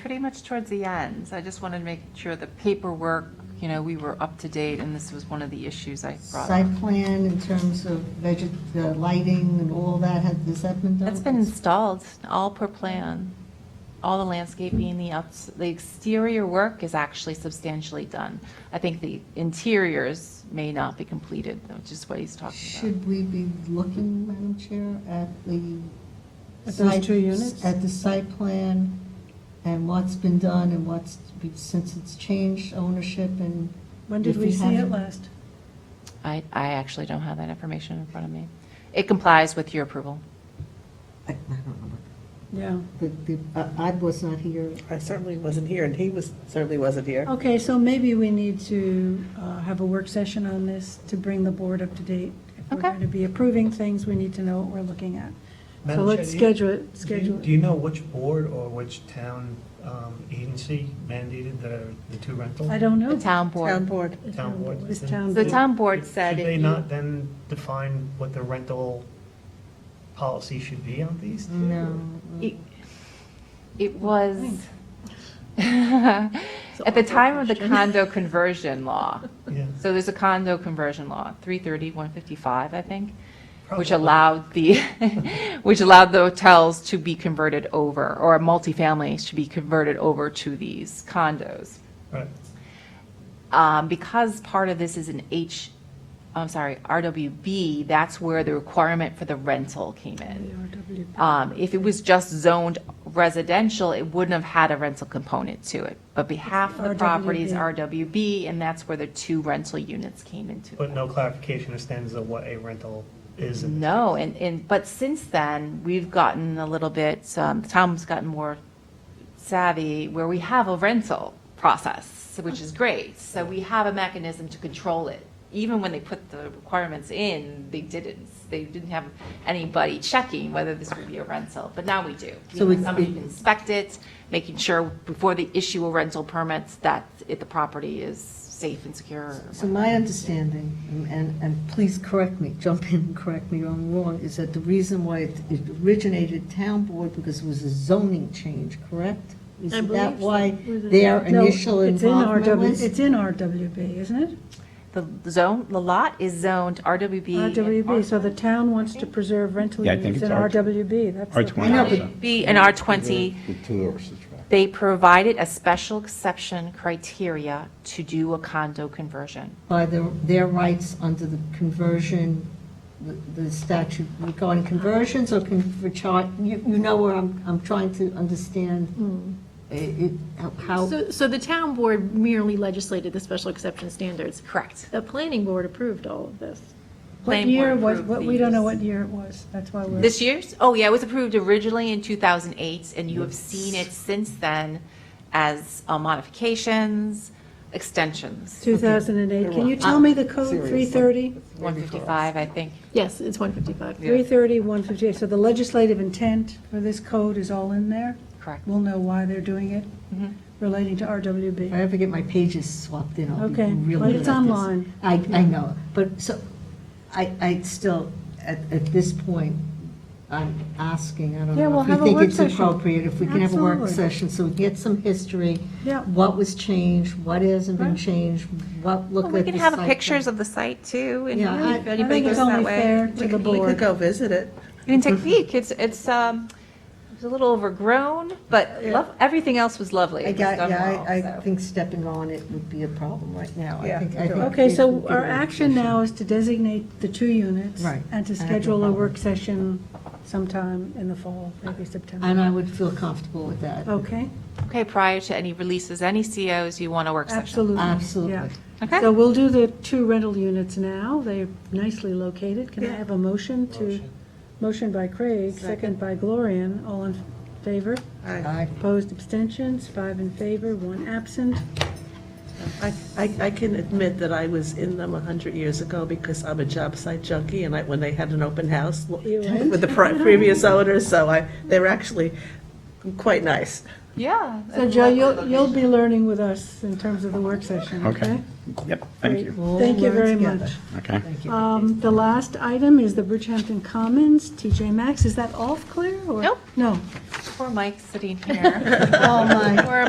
pretty much towards the end. So I just wanted to make sure the paperwork, you know, we were up to date, and this was one of the issues I brought up. Site plan in terms of veget, the lighting and all that, has, has that been done? It's been installed, all per plan. All the landscaping, the outs, the exterior work is actually substantially done. I think the interiors may not be completed, which is what he's talking Should we be looking, Madam Chair, at the? At those site- two units? At the site plan and what's been done and what's, be- since it's changed ownership and. When did if we see it haven't- last? about. I, I actually don't have that information in front of me. It complies with your approval. I I don't remember. Yeah. But the, I I was not here. I certainly wasn't here, and he was, certainly wasn't here. Okay, so maybe we need to uh, have a work session on this to bring the board up to date. If we're Okay. going to be approving things, we need to know what we're looking at. So Madam Chair, let's do you- schedule it, Do you- schedule Do it. you know which board or which town um, agency mandated the, the two rental? I don't know. The town Town board. board. Town board. This town The board. town board said Should if they you- not then define what the rental policy should be on these? two? It- It was, at the time of the condo conversion law, Yeah. so there's a condo conversion law, 330, 155, I think, which Probably. allowed the, which allowed the hotels to be converted over, or multifamilies to be converted over to these condos. Right. Um, Because part of this is an H, I'm sorry, RWB, that's where the requirement for the rental came in. RWP. Um, If it was just zoned residential, it wouldn't have had a rental component to it. But be- half of the property is RWB, and that's where the two rental units came into. But no clarification as stands of what a rental is. in- No, and, and, but since then, we've gotten a little bit, um, Tom's gotten more savvy, where we have a rental process, which is great. So we have a mechanism to control it. Even when they put the requirements in, they didn't, they didn't have anybody checking whether this would be a rental, but now we do. So We have it's- somebody who can inspect it, making sure before they issue a rental permits that it, the property is safe and secure. So my understanding, and- and, and please correct me, jump in and correct me if I'm wrong, is that the reason why it it originated town board because it was a zoning change, correct? Isn't that why their No, initial it's in involvement RW was? It's in RWB, isn't it? The zone, the lot is zoned RWB. and RWB, so the town wants to preserve rental Yeah, I think units in it's R- RWB, that's. the- R20. I know, but Yeah. B and R20, The tourist attraction. they provided a special exception criteria to do a condo conversion. by their, their rights under the conversion, the the statute regarding conversions or con- for char, you, you know where I'm, I'm trying to Hmm. understand i- it, how- how, So, so the town board merely legislated the special exception standards. Correct. The planning board approved all of this. What Planning year board was, approved what- we don't know these. what year it was, that's why we're. This year's? Oh, yeah, it was approved originally in 2008, and you have seen it since then as uh, modifications, extensions, 2008, can you tell me the code, 330? 155, I think. Yes, it's 155. 330, 158, so the legislative intent for this code is all in there? Correct. We'll know why they're doing it relating to if I RWB. ever get my pages swapped in, I'll be Okay, really but good it's at this. online. I, I know, but so, I, I still, at, at this point, I'm asking, I don't Yeah, know we'll if you have a think work it's session. appropriate, if we can have a work Absolutely. session, so we get some history. Yeah. What was changed, what hasn't been Right. changed, what looked Well, at We the can have site pictures plan. of the site, too, and Yeah, I- if I anybody think goes it's that only way. fair to the We could board. go visit it. You can take a peek. It's, it's, um, it's a little overgrown, but lov- everything else was lovely. I It was got, done yeah, well, I, I so. think stepping on it would be a problem right now. I Yeah, think- I you're think right. Okay, it would so be our a- action now is to designate the two units. Right. And to I have no schedule a problem. work session sometime in the fall, maybe September. And I would feel comfortable with that. Okay, Okay, prior to any releases, any COs, you want a work session? absolutely. Absolutely. yeah. Okay. So we'll do the two rental units now, they're nicely located. Can I have a motion to, motion by Craig, second by Gloria, all in favor? I- Opposed, abstentions, five in favor, one absent. I, I I can admit that I was in them 100 years ago because I'm a job site junkie, and I, when they had an open house You went? with the pri- previous owners, so I, they were actually quite nice. Yeah. So Joe, you'll, you'll be learning with us in terms of the work session, okay? Okay. Yep, thank you. We'll Thank you learn very together. much. Okay. Um, The last item is the Bridgehampton Commons, TJ Maxx. Is that all clear? or- Nope. No. poor Mike's sitting here. Oh, my. Poor